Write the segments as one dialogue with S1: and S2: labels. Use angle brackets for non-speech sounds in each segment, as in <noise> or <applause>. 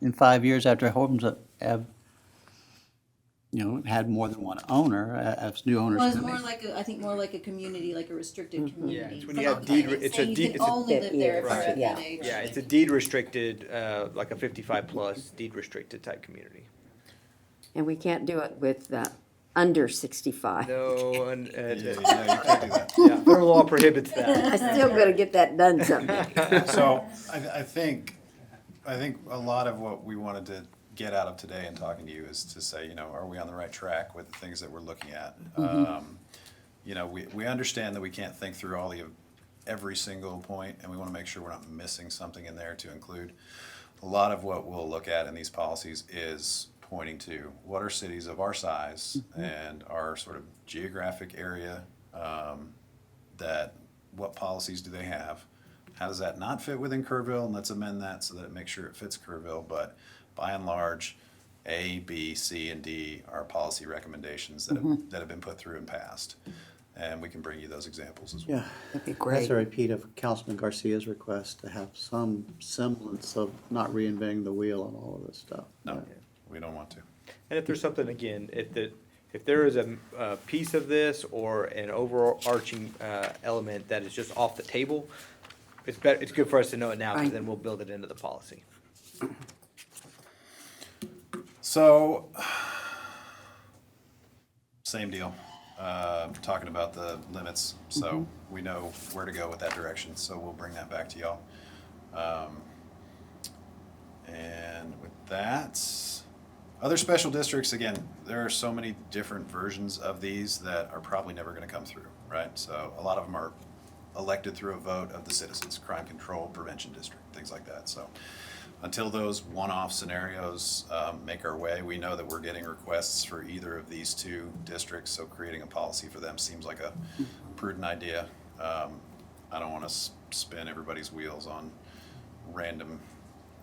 S1: in five years after homes have- have, you know, had more than one owner, a- as new owners
S2: Well, it's
S1: come
S2: more
S1: in.
S2: like a, I think more like a community, like a restricted community.
S3: Mm-hmm. it's when
S2: It's
S3: you
S2: like
S3: have
S2: a
S3: deed
S2: plan. It's
S3: re- it's a
S2: saying
S3: deed-
S2: You
S3: it's
S2: can
S3: a-
S2: only live there if you're
S3: Right.
S2: at
S4: Yeah.
S2: that age.
S3: Yeah, it's a deed restricted, uh, like a fifty-five plus deed restricted type community.
S4: And we can't do it with, uh, under sixty-five.
S3: No, and,
S5: Yeah,
S3: and,
S5: yeah, you can't do that.
S3: <laughs> yeah, federal law prohibits that.
S4: <laughs> <laughs> I still gotta get that done someday.
S5: So I, I think, I think a lot of what we wanted to get out of today and talking to you is to say, you know, are we on the right track with the things that we're looking at? Um, You know, we, we understand that we can't think through all the, every single point, and we want to make sure we're not missing something in there to include. A lot of what we'll look at in these policies is pointing to what are cities of our size and our sort of geographic area, um, that, what policies do they have? How does that not fit within Kerrville? And let's amend that so that it makes sure it fits Kerrville, but by and large, A, B, C, and D are policy recommendations that have, that have been put through and passed. And we can bring you those examples as well.
S6: Yeah, that's a repeat of Councilman Garcia's request to have some semblance of not reinventing the wheel on all of this stuff.
S5: No, we don't want to.
S3: And if there's something, again, if the, if there is a, a piece of this or an overarching, uh, element that is just off the table, it's better, it's good for us to know it now, because
S4: Right.
S3: then we'll build it into the policy.
S5: So, <sighs> same deal. Uh, talking about the limits, so we know where to go with that direction, so we'll bring that back to y'all. Um, And with that, other special districts, again, there are so many different versions of these that are probably never gonna come through, right? So a lot of them are elected through a vote of the citizens, crime control, prevention district, things like that, so. Until those one-off scenarios um, make our way, we know that we're getting requests for either of these two districts, so creating a policy for them seems like a prudent idea. Um, I don't wanna s- spin everybody's wheels on random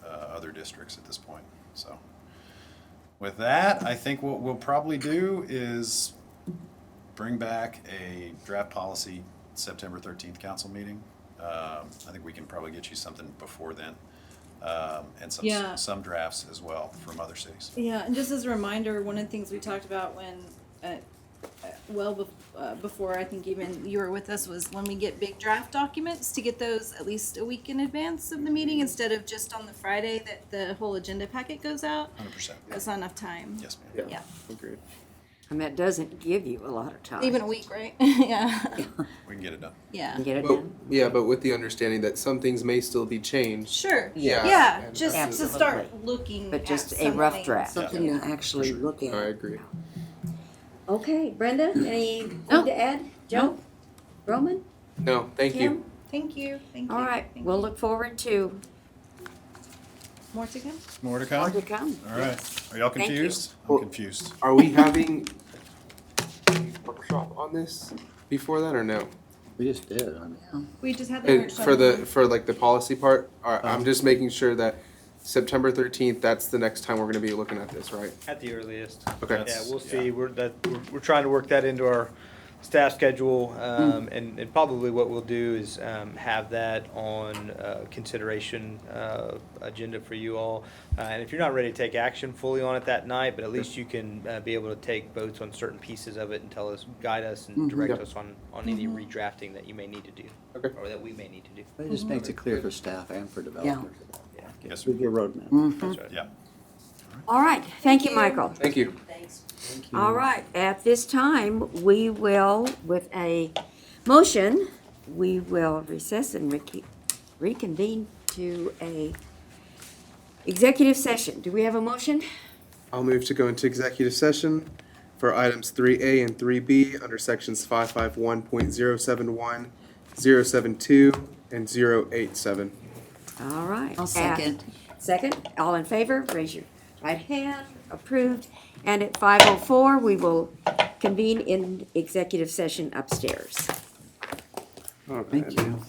S5: uh, other districts at this point. So with that, I think what we'll probably do is bring back a draft policy September 13th council meeting. Um, I think we can probably get you something before then, um, and
S2: Yeah.
S5: some, some drafts as well from other cities.
S2: Yeah, and just as a reminder, one of the things we talked about when, uh, uh, well, bef- uh, before I think even you were with us, was when we get big draft documents, to get those at least a week in advance of the
S3: Mm-hmm.
S2: meeting, instead of just on the Friday that the whole agenda packet goes out.
S5: 100%.
S2: That's not enough time.
S5: Yes, ma'am.
S2: Yeah,
S6: Agreed.
S4: And that doesn't give you a lot of time.
S2: even a week, right? <laughs> Yeah,
S5: We can get it done.
S2: yeah,
S4: Get it
S7: But,
S4: done.
S7: yeah, but with the understanding that some things may still be changed.
S2: sure.
S7: Yeah.
S2: Yeah,
S7: Yeah,
S2: just to
S4: absolutely.
S2: start looking
S4: But
S2: at
S4: just a rough
S2: something.
S4: draft.
S5: Something
S8: to actually look
S7: I agree.
S8: Okay, Brenda, anything
S4: No.
S8: to add? Joe? Roman?
S7: No, thank you.
S8: Kim?
S2: Thank you, thank you.
S4: All right,
S2: thank
S4: we'll
S2: you.
S4: look forward to
S2: More to come?
S5: More
S4: more
S5: to come?
S4: to come.
S5: All right. Are y'all
S4: Thank you.
S5: confused? I'm
S7: Well-
S5: confused.
S7: Are we having a workshop on this before that or no?
S6: We just did, I mean.
S2: We just had the
S7: It,
S2: workshop.
S7: for the for like the policy part, I- I'm just making sure that September 13th. That's the next time we're going to be looking at this, right?
S3: At the earliest.
S7: Okay.
S3: Yeah,
S5: That's-
S3: we'll
S5: yeah.
S3: see. We're, that, we're, we're trying to work that into our staff schedule. Um,
S7: Hmm.
S3: and, and probably what we'll do is, um, have that on, uh, consideration, uh, agenda for you all. Uh, and if you're not ready to take action fully on it that night, but at least you can, uh, be able to take votes on certain pieces of it and tell us, guide us and direct
S7: Yep.
S3: us on, on any redrafting that you may need to do.
S7: Mm-hmm. Okay. Hmm.
S3: Or that we may need to do.
S6: But it just makes it clear for staff and for developers.
S3: Yeah.
S5: Yes, sir.
S6: With your roadmap.
S2: Mm,
S3: That's right.
S5: Yeah.
S4: All right, thank you,
S2: you.
S4: Michael.
S7: Thank you.
S8: Mm.
S4: All right, at this time, we will, with a motion, we will recess and rec- reconvene to a executive session. Do we have a motion?
S7: I'll move to go into executive session for items three A and three B under sections five five one point zero seven one, zero seven two, and zero eight seven.
S4: All right.
S8: I'll second.
S4: At- Second, all in favor, raise your right hand, approved. And at 5:04, we will convene in executive session upstairs.
S6: Thank you.